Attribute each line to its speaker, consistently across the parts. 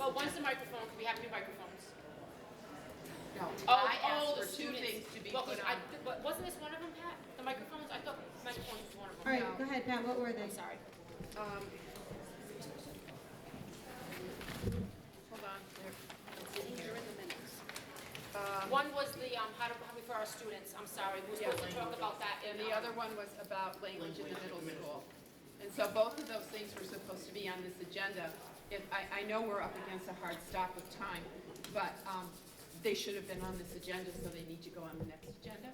Speaker 1: Oh, one's the microphone, 'cause we have new microphones.
Speaker 2: No,
Speaker 1: Oh,
Speaker 2: I
Speaker 1: all
Speaker 2: asked
Speaker 1: the
Speaker 2: for two
Speaker 1: students.
Speaker 2: things to be
Speaker 1: Well,
Speaker 2: put
Speaker 1: 'cause I-
Speaker 2: on.
Speaker 1: th- wa- Wasn't this one of them, Pat? The microphones? I thought microphones was one of them.
Speaker 3: All
Speaker 1: No.
Speaker 3: right, go ahead, Pat, what were they?
Speaker 1: I'm sorry.
Speaker 2: Um, Hold on. You're in the minutes. Um,
Speaker 1: One was the, um, how to, how we- for our students, I'm sorry, we were supposed to talk about that.
Speaker 2: And
Speaker 1: in,
Speaker 2: the
Speaker 1: um,
Speaker 2: other one was about language in the middle school. And so both of those things were supposed to be on this agenda. If, I, I know we're up against a hard stop of time, but um, they should have been on this agenda, so they need to go on the next agenda.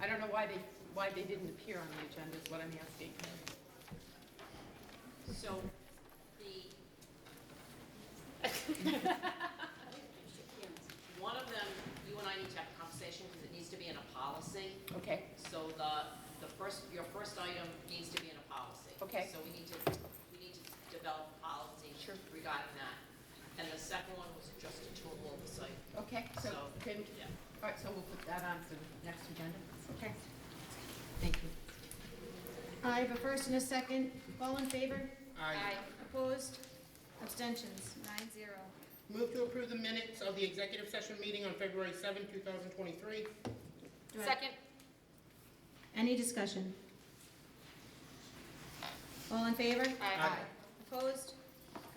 Speaker 2: I don't know why they, why they didn't appear on the agenda is what I'm asking.
Speaker 4: So the, one of them, you and I need to have a conversation because it needs to be in a policy.
Speaker 2: Okay,
Speaker 4: So the, the first, your first item needs to be in a policy.
Speaker 2: Okay.
Speaker 4: So we need to, we need to develop a policy
Speaker 2: Sure.
Speaker 4: regarding that. And the second one was just a tool oversight.
Speaker 2: okay, so
Speaker 4: So-
Speaker 2: can,
Speaker 4: Yeah.
Speaker 2: all right, so we'll put that on for the next agenda.
Speaker 3: Okay.
Speaker 2: Thank you.
Speaker 3: I have a first and a second. All in favor?
Speaker 5: Aye.
Speaker 3: Opposed? Abstentions? Nine zero.
Speaker 5: Move to approve the minutes of the executive session meeting on February 7, 2023.
Speaker 3: Do I-
Speaker 1: Second,
Speaker 3: Any discussion? All in favor?
Speaker 5: Aye.
Speaker 3: Opposed?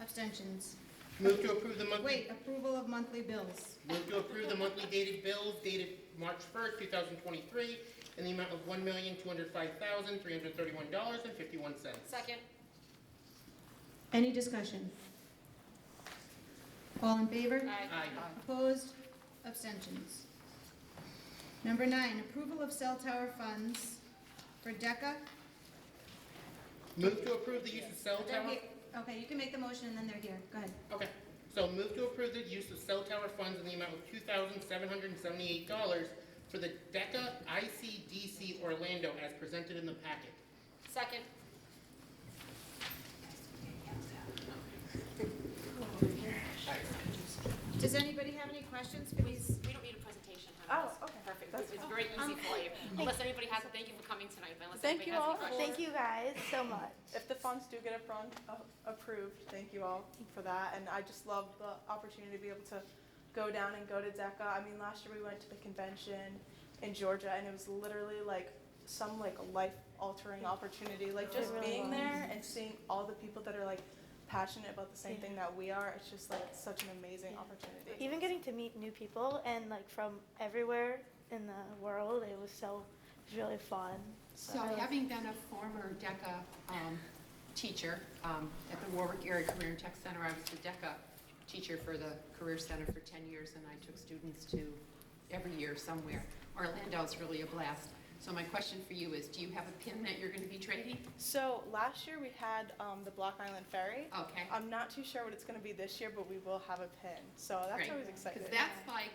Speaker 3: Abstentions?
Speaker 5: Move to approve the monthly,
Speaker 3: Wait, approval of monthly bills.
Speaker 5: move to approve the monthly dated bills dated March 1st, 2023, in the amount of $1,205,331.51.
Speaker 1: second,
Speaker 3: Any discussion? All in favor?
Speaker 1: aye.
Speaker 5: Aye.
Speaker 3: Opposed? Abstentions? Number nine, approval of cell tower funds for DECA.
Speaker 5: Move to approve the use of cell
Speaker 3: They're
Speaker 5: tower.
Speaker 3: here. Okay, you can make the motion and then they're here. Go ahead.
Speaker 5: Okay, so move to approve the use of cell tower funds in the amount of two thousand seven hundred and seventy-eight dollars for the DECA ICDC Orlando as presented in the packet.
Speaker 1: Second,
Speaker 3: Does anybody have any questions for these?
Speaker 1: we don't need a presentation. Oh, okay. Perfect. It's very
Speaker 2: Um,
Speaker 1: easy for you. Unless anybody has, thank you for coming tonight, but unless
Speaker 6: Thank
Speaker 1: anybody
Speaker 6: you
Speaker 1: has any
Speaker 6: all.
Speaker 1: questions.
Speaker 6: Thank you guys so much. If the funds do get appro- uh, approved, thank you all for that. And I just love the opportunity to be able to go down and go to DECA. I mean, last year we went to the convention in Georgia, and it was literally like some like life-altering opportunity. Like just being there and seeing all the people that are like passionate about the same thing that we are. It's just like such an amazing opportunity.
Speaker 7: Even getting to meet new people and like from everywhere in the world, it was so it was really fun.
Speaker 2: So having been a former DECA um, teacher um, at the Warwick Area Career and Tech Center, I was the DECA teacher for the Career Center for 10 years, and I took students to every year somewhere. Orlando's really a blast. So my question for you is, do you have a pin that you're going to be trading?
Speaker 6: So last year we had um, the Block Island Ferry.
Speaker 2: Okay.
Speaker 6: I'm not too sure what it's going to be this year, but we will have a pin. So that's
Speaker 2: Great.
Speaker 6: always exciting.
Speaker 2: Because that's like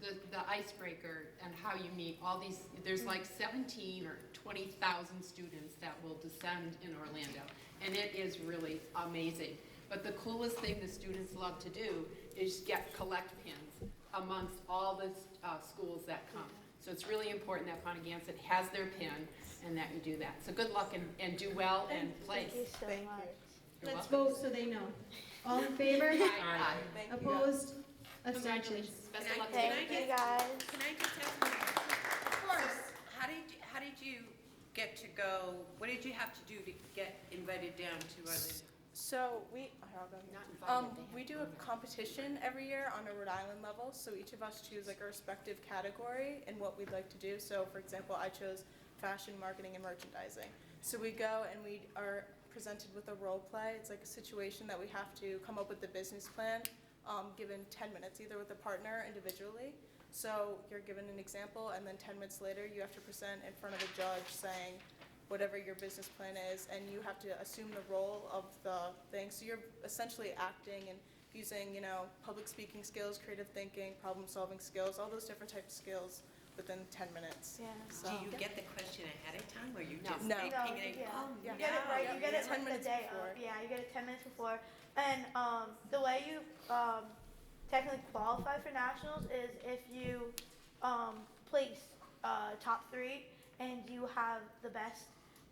Speaker 2: the, the icebreaker and how you meet all these, there's like 17 or 20,000 students that will descend in Orlando. And it is really amazing. But the coolest thing the students love to do is get, collect pins amongst all the uh, schools that come. So it's really important that Pontiac has their pin and that you do that. So good luck and, and do well and
Speaker 7: Thank you
Speaker 2: place.
Speaker 7: so
Speaker 6: Thank you.
Speaker 7: much.
Speaker 2: You're
Speaker 3: Let's
Speaker 2: welcome.
Speaker 3: vote so they know. All in favor?
Speaker 2: Aye.
Speaker 6: Thank you.
Speaker 3: Opposed?
Speaker 1: Congratulations.
Speaker 3: Abstentions?
Speaker 1: Best of luck.
Speaker 7: Thank
Speaker 1: tonight.
Speaker 7: you guys.
Speaker 8: Can I just ask, of course, how did, how did you get to go, what did you have to do to get invited down to Orlando?
Speaker 6: So we, oh, here, I'll go.
Speaker 2: Not invited, they
Speaker 6: Um,
Speaker 2: have
Speaker 6: we
Speaker 2: to
Speaker 6: do
Speaker 2: go
Speaker 6: a
Speaker 2: there.
Speaker 6: competition every year on a Rhode Island level, so each of us choose like a respective category and what we'd like to do. So for example, I chose fashion, marketing, and merchandising. So we go and we are presented with a role play. It's like a situation that we have to come up with the business plan, um, given ten minutes, either with a partner or individually. So you're given an example, and then ten minutes later, you have to present in front of a judge saying, whatever your business plan is, and you have to assume the role of the thing. So you're essentially acting and using, you know, public speaking skills, creative thinking, problem solving skills, all those different types of skills within 10 minutes.
Speaker 7: Yeah.
Speaker 6: So,
Speaker 8: Do you get the question ahead of time, or you
Speaker 2: No.
Speaker 8: just
Speaker 6: No.
Speaker 8: like
Speaker 7: No,
Speaker 8: hanging
Speaker 7: yeah.
Speaker 8: out?
Speaker 7: You
Speaker 8: Oh,
Speaker 7: get it
Speaker 8: no.
Speaker 7: right. You get it
Speaker 6: 10
Speaker 7: like the
Speaker 6: minutes
Speaker 7: day
Speaker 6: before.
Speaker 7: of. Yeah, you get it ten minutes before. And um, the way you um, technically qualify for nationals is if you um, place uh, top three and you have the best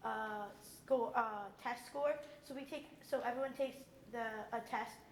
Speaker 7: uh, score uh, test score. So we take so everyone takes the a test